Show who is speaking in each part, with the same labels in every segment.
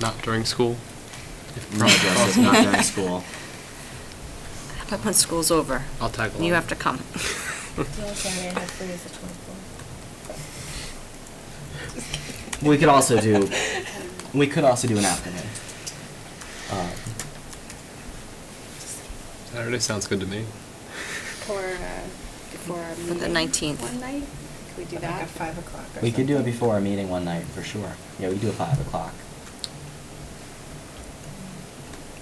Speaker 1: not during school? If
Speaker 2: No, Jess, it's not during school.
Speaker 3: How about when school's over?
Speaker 1: I'll tag along.
Speaker 3: You have to come.
Speaker 4: The only Saturday I have free is the 24th.
Speaker 2: We could also do, we could also do an afternoon. Um,
Speaker 1: Saturday sounds good to me.
Speaker 5: Or uh, before our
Speaker 3: For the
Speaker 5: meeting
Speaker 3: 19th.
Speaker 5: One night? Could we do that?
Speaker 6: Like at five o'clock or
Speaker 2: We could do it
Speaker 6: something.
Speaker 2: before our meeting one night, for sure. Yeah, we do it five o'clock.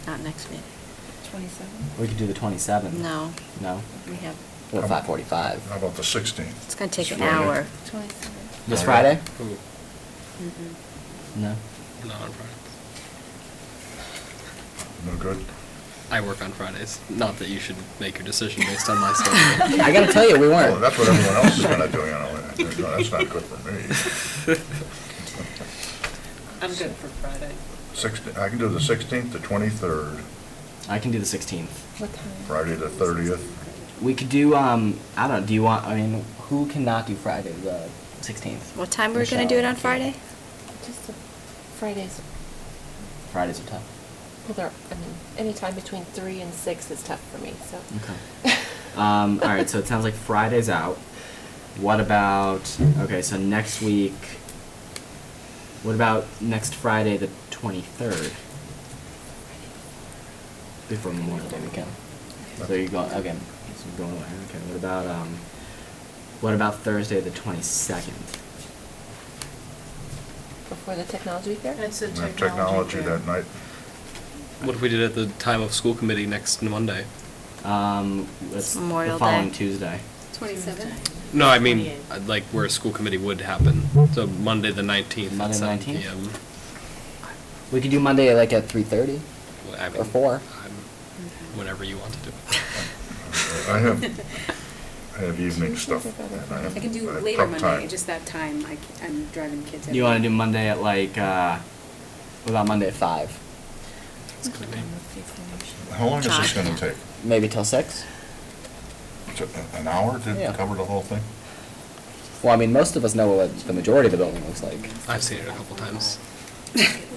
Speaker 3: Not next meeting.
Speaker 2: We could do the twenty-seventh.
Speaker 3: No.
Speaker 2: No?
Speaker 3: We have,
Speaker 2: Or five forty-five.
Speaker 7: How about the 16th?
Speaker 3: it's gonna take an
Speaker 7: Friday.
Speaker 3: hour.
Speaker 5: 27th.
Speaker 2: This
Speaker 7: Alright.
Speaker 2: Friday?
Speaker 1: Ooh,
Speaker 3: Mhm.
Speaker 2: No?
Speaker 1: not on Fridays.
Speaker 7: No good?
Speaker 1: I work on Fridays. Not that you should make your decision based on my schedule.
Speaker 2: I gotta tell you, we
Speaker 7: Well,
Speaker 2: weren't.
Speaker 7: Oh, that's what everyone else is gonna do, you know, No, that's not good for me.
Speaker 6: I'm good for Friday.
Speaker 7: Sixteen, I can do the 16th, the 23rd,
Speaker 2: I can do the sixteenth.
Speaker 4: What time?
Speaker 7: Friday the 30th.
Speaker 2: We could do, um, I don't know, do you want, I mean, who cannot do Friday, the sixteenth?
Speaker 3: What time we're gonna do it on Friday?
Speaker 4: Just the Fridays,
Speaker 2: Fridays are tough.
Speaker 4: well, they're, I mean, anytime between three and six is tough for me, so.
Speaker 2: Okay. Um, all right, so it sounds like Friday's out. What about, okay, so next week, what about next Friday, the twenty-third? Before Memorial Day weekend. So you're going, okay, so you're going away, okay, what about, um, what about Thursday, the twenty-second?
Speaker 4: Before the technology week there?
Speaker 6: That's a
Speaker 7: We have
Speaker 6: technology.
Speaker 7: technology
Speaker 6: fair.
Speaker 7: that night.
Speaker 1: What if we did it at the time of school committee next Monday?
Speaker 2: Um, it's the
Speaker 3: Memorial
Speaker 2: following
Speaker 3: Day.
Speaker 2: Tuesday.
Speaker 5: 27th?
Speaker 1: No, I mean,
Speaker 6: 28th.
Speaker 1: uh, like where a school committee would happen. So Monday, the 19th. at
Speaker 2: Monday the
Speaker 1: 7
Speaker 2: 19th?
Speaker 1: PM.
Speaker 2: We could do Monday, like, at three-thirty?
Speaker 1: Well, I
Speaker 2: Or
Speaker 1: mean,
Speaker 2: four.
Speaker 1: I'm- Whenever you want to do it.
Speaker 7: I have, I have evening stuff. and have-
Speaker 5: I can do
Speaker 7: I have
Speaker 5: later
Speaker 7: prep
Speaker 5: Monday,
Speaker 7: time.
Speaker 5: just that time, I c- I'm driving kids.
Speaker 2: You
Speaker 5: everywhere.
Speaker 2: wanna do Monday at like, uh, what about Monday at five?
Speaker 1: It's good to me.
Speaker 7: How long is this gonna take?
Speaker 2: Maybe till six?
Speaker 7: To- An hour to
Speaker 2: Yeah.
Speaker 7: cover the whole thing?
Speaker 2: Well, I mean, most of us know what the majority of the building looks like.
Speaker 1: I've seen it a couple times.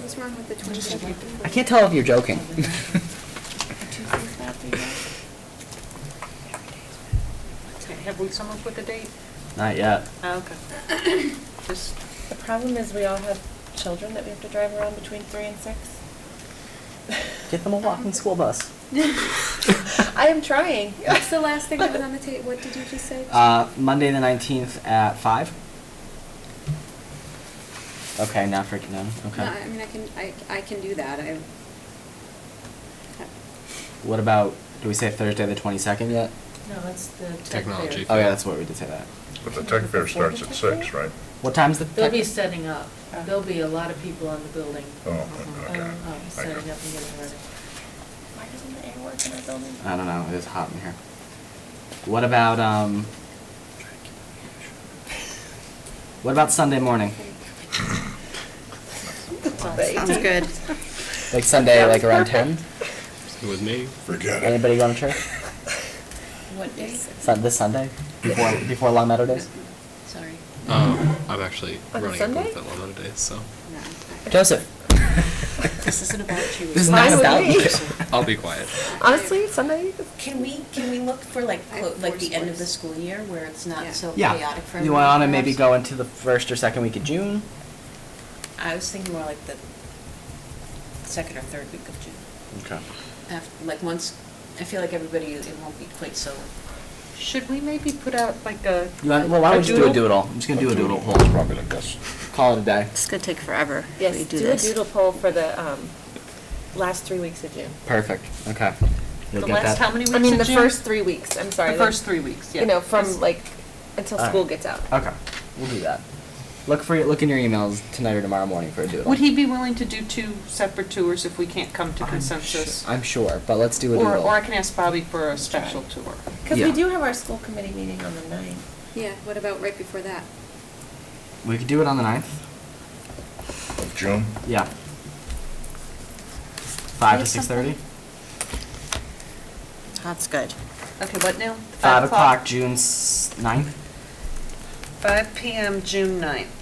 Speaker 5: What's wrong with the 27th?
Speaker 2: I can't tell if you're joking.
Speaker 5: Tuesday's not the day.
Speaker 6: Okay, Have we come up with a date?
Speaker 2: Not yet.
Speaker 6: Oh, Okay. Just,
Speaker 4: The problem is we all have children that we have to drive around between three and six.
Speaker 2: Get them a walking school bus.
Speaker 4: I am trying.
Speaker 5: What's the last thing that was on the tape? What did you just say?
Speaker 2: Uh, Monday the nineteenth at five. Okay, not freaking out.
Speaker 5: No,
Speaker 2: Okay.
Speaker 5: I mean, I can, I, I can do that, I.
Speaker 2: What about? Do we say Thursday the twenty second yet?
Speaker 6: no, that's the. tech fair.
Speaker 1: Technology.
Speaker 2: Oh yeah, that's what we did say that.
Speaker 7: But the tech fair starts at six, right?
Speaker 2: What time's the?
Speaker 8: They'll
Speaker 2: tech-
Speaker 8: be setting up.
Speaker 6: Oh.
Speaker 8: There'll be a lot of people on the building.
Speaker 7: Oh, okay.
Speaker 8: um, um,
Speaker 7: I
Speaker 8: Setting up
Speaker 7: got-
Speaker 8: and getting ready.
Speaker 4: Why doesn't the air work in our building?
Speaker 2: I don't know. It is hot in here. What about um? What about Sunday morning?
Speaker 3: Sounds good.
Speaker 2: Like Sunday, like around ten.
Speaker 1: It was me.
Speaker 7: Forget it.
Speaker 2: Anybody going to church?
Speaker 5: What days?
Speaker 2: Sun- this Sunday before before Long Meadow Days.
Speaker 5: Sorry.
Speaker 1: Um, I'm actually
Speaker 4: On a
Speaker 1: running a
Speaker 4: Sunday?
Speaker 1: booth at Lomond today, so
Speaker 5: No, I-
Speaker 2: Joseph.
Speaker 6: This isn't about you.
Speaker 2: This is
Speaker 4: Mine
Speaker 2: not
Speaker 4: would
Speaker 2: about
Speaker 4: be.
Speaker 2: you.
Speaker 1: I'll be quiet.
Speaker 4: Honestly, Sunday,
Speaker 9: Can we, can we look for like,
Speaker 5: I have
Speaker 9: clo- like
Speaker 5: four
Speaker 9: the end of the
Speaker 5: sports.
Speaker 9: school year where it's
Speaker 5: Yeah.
Speaker 9: not so
Speaker 2: Yeah.
Speaker 9: chaotic for everyone?
Speaker 2: You want to maybe
Speaker 9: perhaps?
Speaker 2: go into the first or second week of June?
Speaker 9: I was thinking more like the second or third week of June.
Speaker 2: Okay.
Speaker 9: After, like once, I feel like everybody, it won't be quite so,
Speaker 6: Should we maybe put out like a?
Speaker 2: You want, well, why don't you do a doodle? I'm just gonna do a doodle
Speaker 7: It's
Speaker 2: poll.
Speaker 7: probably the best.
Speaker 2: Call it a day.
Speaker 3: It's gonna take forever. if we
Speaker 10: Yes,
Speaker 3: do
Speaker 10: do a
Speaker 3: this.
Speaker 10: doodle poll for the um, last three weeks of June.
Speaker 2: Perfect. Okay. You'll
Speaker 6: The
Speaker 2: get
Speaker 6: last,
Speaker 2: that.
Speaker 6: how many weeks
Speaker 10: I
Speaker 6: in
Speaker 10: mean, the
Speaker 6: June?
Speaker 10: first three weeks, I'm sorry.
Speaker 6: The
Speaker 10: like,
Speaker 6: first three weeks, yeah.
Speaker 10: You know,
Speaker 6: Just-
Speaker 10: from like, until
Speaker 2: Alright.
Speaker 10: school gets out.
Speaker 2: Okay. We'll do that. Look for look in your emails tonight or tomorrow morning for a doodle.
Speaker 6: Would he be willing to do two separate tours if we can't come to
Speaker 2: I'm
Speaker 6: consensus?
Speaker 2: su- I'm sure, but let's do a
Speaker 6: Or,
Speaker 2: doodle.
Speaker 6: or I can ask Bobby for a special tour.
Speaker 4: because
Speaker 2: Yeah.
Speaker 4: we do have our school committee meeting on the ninth.
Speaker 5: Yeah, what about right before that?
Speaker 2: we could do it on the 9th.
Speaker 7: Of June?
Speaker 2: Yeah. Five to
Speaker 9: Say
Speaker 2: six thirty.
Speaker 3: That's good.
Speaker 6: Okay, what now?
Speaker 2: Five o'clock, June s- 9th.
Speaker 6: Five PM, June ninth.